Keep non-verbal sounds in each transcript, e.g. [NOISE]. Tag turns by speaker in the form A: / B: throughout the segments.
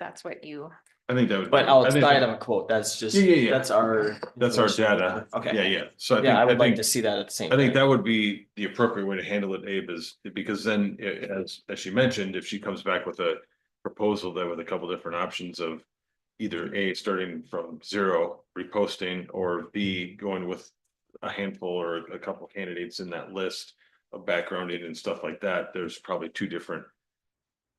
A: that's what you,
B: I think that would.
C: But
B: I think
C: outside
B: that-
C: of a quote, that's just,
B: Yeah, yeah, yeah.
C: that's our.
B: That's our
C: information.
B: data.
C: Okay.
B: Yeah, yeah. So I think,
C: Yeah, I
B: I
C: would like
B: think,
C: to see that at the same.
B: I think
C: time.
B: that would be the appropriate way to handle it, Abe, is because then, i- as, as she mentioned, if she comes back with a proposal there with a couple different options of either A, starting from zero, reposting, or B, going with a handful or a couple candidates in that list of backgrounding and stuff like that, there's probably two different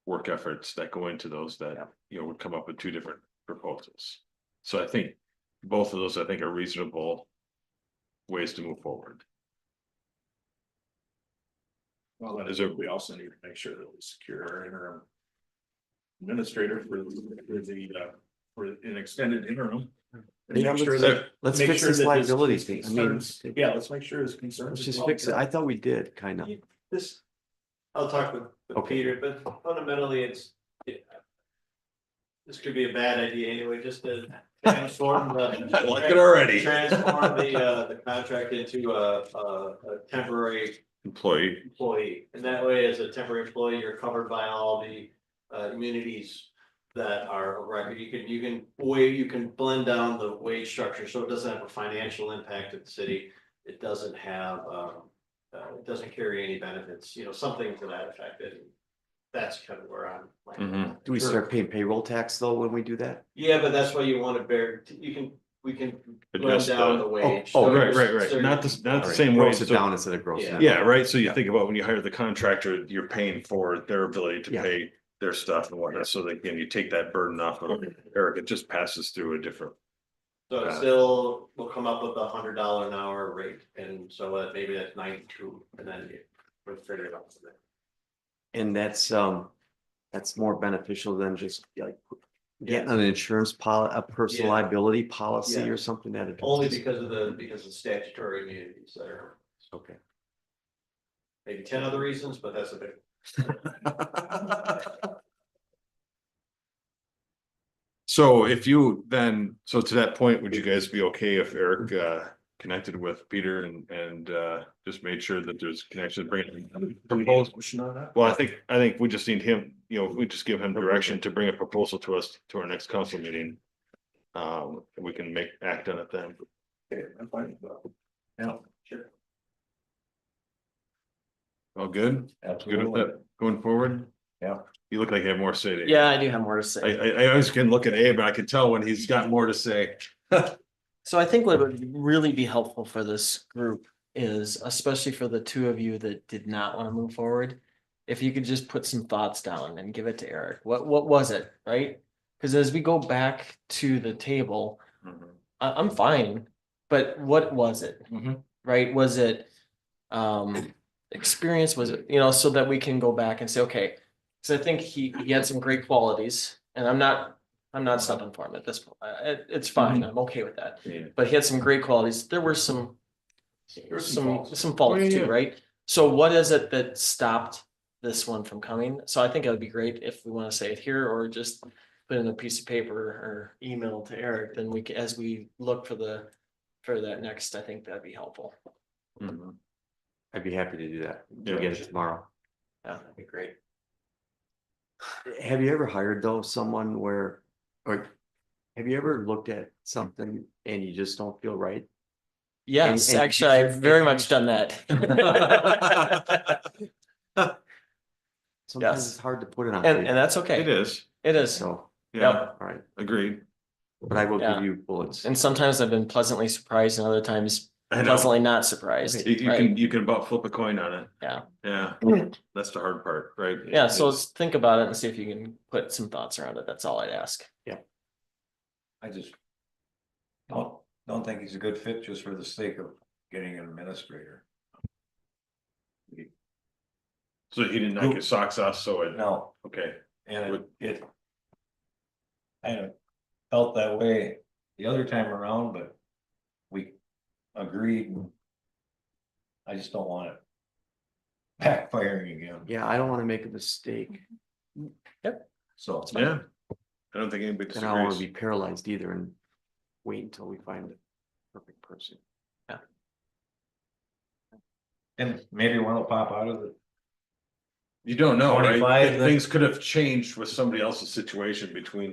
B: work efforts that go into those
C: Yeah.
B: that, you know, would come up with two different proposals. So I think both of those, I think, are reasonable ways to move forward.
D: Well, that
B: Is
D: is,
B: there-
D: we also need to make sure that we secure our interim. Administrator for the, for the, uh, for an extended interim. And
E: Yeah,
D: make sure
E: let's-
D: that-
E: Let's
D: make
E: fix
D: sure
E: this
D: that his
E: liability thing. I mean,
D: concerns- Yeah, let's make sure his concerns.
E: let's
D: are
E: just
D: well
E: fix it. I
D: addressed.
E: thought we did, kind of.
F: This, I'll talk with, with
E: Okay.
F: Peter, but fundamentally, it's. it- This could be a bad idea anyway, just to transform the.
B: [LAUGHS] I like it already.
F: Transform the, uh, the contract into a, a, a temporary
B: Employee,
F: employee. And that way, as a temporary employee, you're covered by all the uh immunities that are a record. You can, you can way, you can blend down the wage structure, so it doesn't have a financial impact at the city. It doesn't have, um, uh, it doesn't carry any benefits, you know, something to that effect. And that's kind of where I'm.
B: Mm-hmm.
F: landing.
E: Do we start paying payroll tax though when we do that?
F: Yeah, but that's why you want to bear, you can, we can blend
B: Adjust
F: down
B: the-
F: the wage.
E: oh,
F: So
B: right, right,
F: there's-
B: right, not the, not the
E: Alright,
B: same way,
E: Gross it
B: so-
E: down instead of gross.
F: Yeah.
E: net.
B: yeah, right, so you
E: Yeah.
B: think about when you hire the contractor, you're paying for their ability to
E: Yeah.
B: pay their stuff and whatnot, so that, again, you take that burden off of Eric, it just passes through a different.
F: So
B: Got
F: it
B: it.
F: still will come up with a hundred dollar an hour rate, and so that maybe that's ninety-two, and then you would figure it out from there.
E: And that's, um, that's more beneficial than just like getting an insurance policy, a personal
F: Yeah.
E: liability policy
F: Yeah.
E: or something that.
F: Only
E: addresses-
F: because of the, because of statutory immunities that are
E: Okay.
F: maybe ten other reasons, but that's a big.
B: So if you then, so to that point, would you guys be okay if Eric uh connected with Peter and and uh just made sure that there's connection, bring it proposed?
D: Motion on that?
B: Well, I think, I think we just need him, you know, we just give him direction to bring a proposal to us to our next council meeting. Um, and we can make act on it then.
D: Okay, I'm fine with that. Yeah, sure.
B: All good? Good with that going forward?
D: Yeah.
B: You look like you have more to say. to Abe.
C: Yeah, I do have more
B: I
C: to say.
B: I I always can look at Abe, and I can tell when he's got more to say.
C: So I think what would really be helpful for this group is, especially for the two of you that did not want to move forward. If you could just put some thoughts down and give it to Eric, what, what was it, right? Because as we go back to the table, I, I'm fine, but what was it?
B: Mhm.
C: Right? Was it, um, experience? Was it, you know, so that we can go back and say, okay. Cause I think he, he had some great qualities and I'm not, I'm not stopping for him at this point. I- It, it's fine. I'm okay with that.
B: Yeah.
C: But he had some great qualities. There were some, there were some, some
B: yeah,
C: faults
B: yeah.
C: too, right? So what is it that stopped this one from coming? So I think it would be great if we want to say it here or just put in a piece of paper or email to Eric, then we, ca- as we look for the, for that next, I think that'd be helpful.
B: Mm-hmm.
E: I'd be happy to do that.
B: Yeah.
E: We'll get it tomorrow.
C: Yeah, that'd be great.
E: Have you ever hired though someone where, or have you ever looked at something and you just don't feel right?
C: Yes,
E: and-
C: actually, I've very much done that.
E: Sometimes
C: Yes.
E: it's hard to put it
C: [LAUGHS]
E: on.
C: And,
E: paper,
C: and that's okay.
B: It is,
C: It is.
E: So,
B: yeah,
C: Yep.
E: all right,
B: agreed.
E: but I will
C: Yeah.
E: give you bullets.
C: And sometimes I've been pleasantly surprised and other times
B: I know.
C: pleasantly not surprised.
B: You, you
C: right?
B: can, you can about flip a coin on it.
C: Yeah. Mm-hmm.
B: Yeah, that's the hard part, right?
C: Yeah, so
B: It's-
C: let's think about it and see if you can put some thoughts around it. That's all I'd ask.
G: I just. Don't, don't think he's a good fit just for the sake of getting an administrator.
B: So he didn't knock his socks off, so it,
G: No,
B: okay,
G: and it-
B: Would-
G: it. Kind of felt that way the other time around, but we agreed. and I just don't want it. Backfiring again,
E: Yeah, I don't want to make a mistake
G: so.
B: yeah. I don't think anybody
E: and I don't want
B: disagrees.
E: to be paralyzed either and wait until we find the perfect person.
G: And maybe one will pop out of the,
B: You don't know, right?
G: 25,
B: Things could have changed with somebody else's situation between